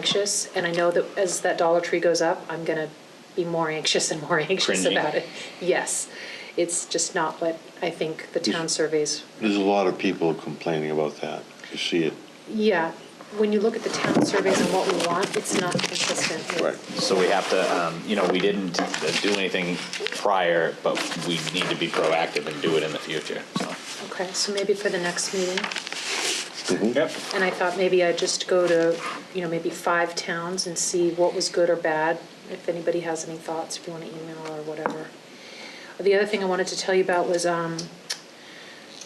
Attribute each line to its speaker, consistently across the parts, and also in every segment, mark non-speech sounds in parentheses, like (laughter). Speaker 1: anxious, and I know that as that Dollar Tree goes up, I'm gonna be more anxious and more (laughs) anxious
Speaker 2: Cringy.
Speaker 1: about it. Yes, it's just not what I think the town surveys,
Speaker 3: There's a lot of people complaining about that. You see it.
Speaker 1: yeah. When you look at the town surveys and what we want, it's not consistent
Speaker 3: Right.
Speaker 1: with,
Speaker 2: So we have to, um, you know, we didn't uh, do anything prior, but we need to be proactive and do it in the future, so.
Speaker 1: okay, so maybe for the next meeting.
Speaker 3: Mm-hmm.
Speaker 2: Yep.
Speaker 1: And I thought maybe I'd just go to, you know, maybe five towns and see what was good or bad, if anybody has any thoughts, if you want to email or whatever. The other thing I wanted to tell you about was um,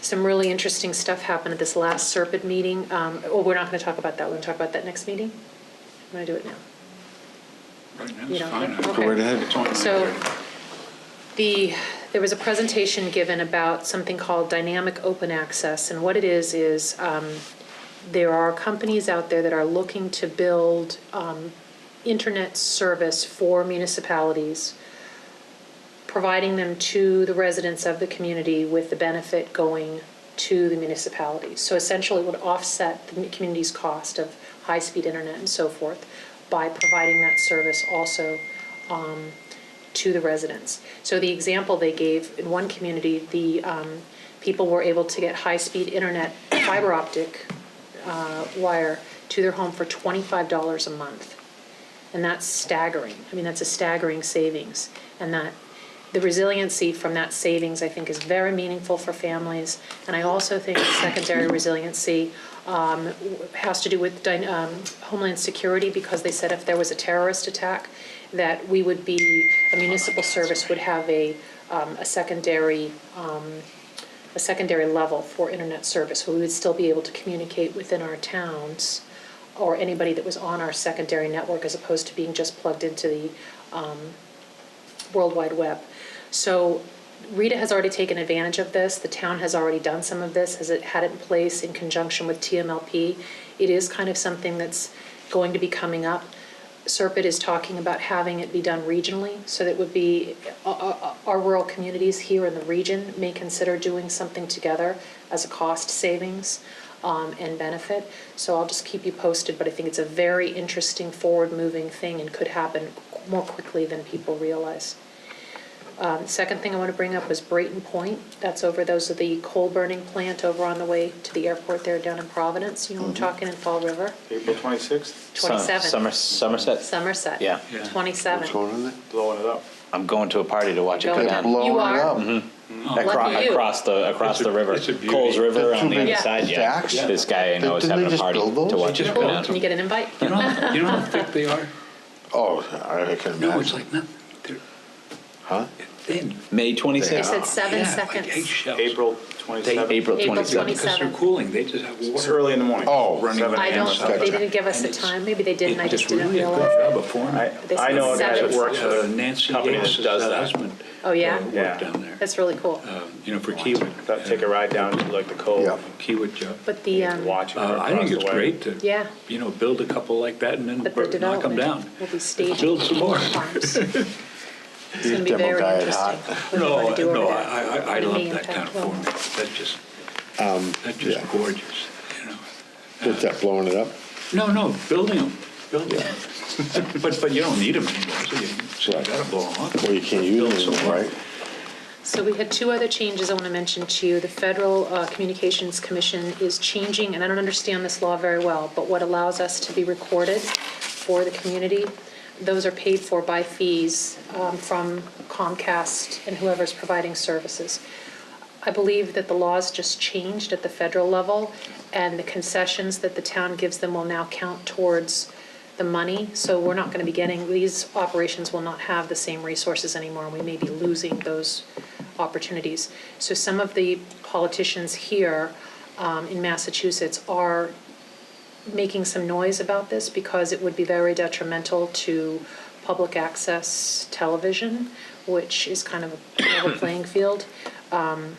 Speaker 1: some really interesting stuff happened at this last Serpent meeting. Um, Well, we're not going to talk about that, we're going to talk about that next meeting. I'm going to do it now.
Speaker 4: Right now,
Speaker 1: You
Speaker 4: it's
Speaker 1: don't
Speaker 4: fine.
Speaker 1: know?
Speaker 4: I-
Speaker 1: Okay.
Speaker 3: Go right ahead.
Speaker 4: it's only
Speaker 1: So
Speaker 4: nine
Speaker 1: the, there was a presentation given about something called dynamic open access. And what it is, is um, there are companies out there that are looking to build um, internet service for municipalities, providing them to the residents of the community with the benefit going to the municipalities. So essentially, it would offset the community's cost of high-speed internet and so forth by providing that service also to the residents. So the example they gave, in one community, the um, people were able to get high-speed internet fiber optic uh, wire to their home for $25 a month. And that's staggering. I mean, that's a staggering savings. And that, the resiliency from that savings, I think, is very meaningful for families. And I also think secondary resiliency um, has to do with dy- um, Homeland Security, because they said if there was a terrorist attack, that we would be, a municipal service would have a, um, a secondary, um, a secondary level for internet service. So we would still be able to communicate within our towns or anybody that was on our secondary network as opposed to being just plugged into the um, World Wide Web. So Rita has already taken advantage of this. The town has already done some of this, has it had it in place in conjunction with TMLP. It is kind of something that's going to be coming up. Serpent is talking about having it be done regionally, so that it would be, uh, uh, our rural communities here in the region may consider doing something together as a cost savings um, and benefit. So I'll just keep you posted, but I think it's a very interesting, forward-moving thing and could happen more quickly than people realize. Um, Second thing I want to bring up was Brayton Point. That's over, those are the coal-burning plant over on the way to the airport there down in Providence. You know, what I'm talking in Fall River,
Speaker 5: April 26th,
Speaker 2: Sum-
Speaker 1: 27.
Speaker 2: Somer- Somerset,
Speaker 1: Somerset.
Speaker 2: Yeah.
Speaker 4: Yeah.
Speaker 1: 27.
Speaker 3: What's going on there?
Speaker 5: blowing it up.
Speaker 2: I'm going to a party to watch it
Speaker 1: Go
Speaker 2: go
Speaker 1: ahead.
Speaker 2: down.
Speaker 1: Blow.
Speaker 3: Blowing
Speaker 1: You
Speaker 3: it
Speaker 1: are.
Speaker 3: up.
Speaker 1: Lucky
Speaker 2: Across,
Speaker 1: you.
Speaker 2: across the, across
Speaker 4: It's a-
Speaker 2: the river,
Speaker 4: it's a beauty.
Speaker 2: Coles River
Speaker 3: Didn't
Speaker 2: on the
Speaker 3: they-
Speaker 2: other side, yeah.
Speaker 3: Stacks?
Speaker 2: This guy I know is
Speaker 3: Didn't they
Speaker 2: having a
Speaker 3: just
Speaker 2: party
Speaker 3: build those?
Speaker 2: to watch it go
Speaker 4: Cool.
Speaker 1: Can
Speaker 2: down.
Speaker 1: you get an invite?
Speaker 4: You know, you know how thick they are?
Speaker 3: Oh, I can
Speaker 4: No, it's
Speaker 3: imagine.
Speaker 4: like nothing. They're
Speaker 3: Huh?
Speaker 4: thin.
Speaker 2: May
Speaker 1: They
Speaker 2: twenty-sixth,
Speaker 1: said seven
Speaker 4: Yeah, Like
Speaker 1: seconds.
Speaker 4: eggshells.
Speaker 5: April
Speaker 2: They-
Speaker 5: 27th.
Speaker 2: April
Speaker 1: April
Speaker 2: twenty-seventh.
Speaker 4: Because they're
Speaker 1: 27.
Speaker 4: cooling, they just have water.
Speaker 5: It's early in the morning.
Speaker 3: Oh,
Speaker 5: Running
Speaker 3: seven
Speaker 1: I
Speaker 3: a.m.
Speaker 1: don't,
Speaker 3: Gotcha.
Speaker 1: they didn't give us the time, maybe they did and I
Speaker 4: It's
Speaker 1: just didn't
Speaker 4: really a good
Speaker 1: realize.
Speaker 4: job of forming.
Speaker 5: I,
Speaker 1: They
Speaker 5: I know a guy
Speaker 1: said
Speaker 5: that works at
Speaker 4: Uh,
Speaker 5: a
Speaker 4: Nancy uh,
Speaker 5: company that
Speaker 4: Yates,
Speaker 5: does
Speaker 4: her
Speaker 5: that.
Speaker 4: husband.
Speaker 1: Oh, yeah?
Speaker 4: uh,
Speaker 5: Yeah.
Speaker 4: Worked down there,
Speaker 1: That's really cool.
Speaker 4: Um, you know, for Kiewit. uh,
Speaker 5: That- Take a ride down to like the
Speaker 3: Yeah.
Speaker 5: cove,
Speaker 4: Kiewit job.
Speaker 1: But the,
Speaker 5: and
Speaker 1: um,
Speaker 5: watch it
Speaker 4: Uh, I
Speaker 5: across
Speaker 4: think
Speaker 5: the
Speaker 4: it's
Speaker 5: way.
Speaker 4: great to,
Speaker 1: Yeah.
Speaker 4: you know, build a couple like that and then
Speaker 1: but the
Speaker 4: knock 'em down.
Speaker 1: development will be staged.
Speaker 4: Build some more. (laughs)
Speaker 1: farms. It's going to be
Speaker 3: demo
Speaker 1: very
Speaker 3: guy at
Speaker 1: interesting.
Speaker 3: Hot.
Speaker 1: What do you
Speaker 4: No,
Speaker 1: wanna do
Speaker 4: no,
Speaker 1: over
Speaker 4: I,
Speaker 1: there?
Speaker 4: I, I- I
Speaker 1: What do you
Speaker 4: love
Speaker 1: mean
Speaker 4: that kind
Speaker 1: impact
Speaker 4: of
Speaker 1: will?
Speaker 4: format. That's just, that's just
Speaker 3: Um, yeah.
Speaker 4: gorgeous, you know.
Speaker 3: Is that blowing it up?
Speaker 4: No, no, building them, building them. (laughs) But, but you don't need them anymore, so you, so you
Speaker 3: Right.
Speaker 4: gotta blow them up.
Speaker 3: Well, you can't use
Speaker 4: Build
Speaker 3: it
Speaker 4: some
Speaker 3: anymore,
Speaker 4: more.
Speaker 3: right?
Speaker 1: So we had two other changes I want to mention to you. The Federal uh, Communications Commission is changing, and I don't understand this law very well, but what allows us to be recorded for the community, those are paid for by fees um, from Comcast and whoever's providing services. I believe that the laws just changed at the federal level, and the concessions that the town gives them will now count towards the money. So we're not going to be getting, these operations will not have the same resources anymore, and we may be losing those opportunities. So some of the politicians here um, in Massachusetts are making some noise about this because it would be very detrimental to public access television, which is kind of a level playing field. Um,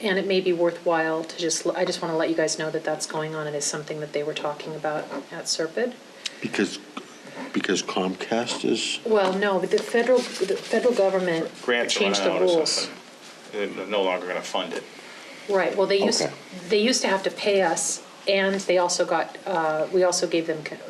Speaker 1: And it may be worthwhile to just, I just want to let you guys know that that's going on. It is something that they were talking about at Serpide.
Speaker 3: Because, because Comcast is,
Speaker 1: Well, no, but the federal, the federal government
Speaker 5: Grants are
Speaker 1: changed
Speaker 5: running
Speaker 1: the
Speaker 5: out or
Speaker 1: rules.
Speaker 5: something. They're no longer going to fund it.
Speaker 1: Right, well, they used,
Speaker 3: Okay.
Speaker 1: they used to have to pay us And they also got, uh, we also gave them co-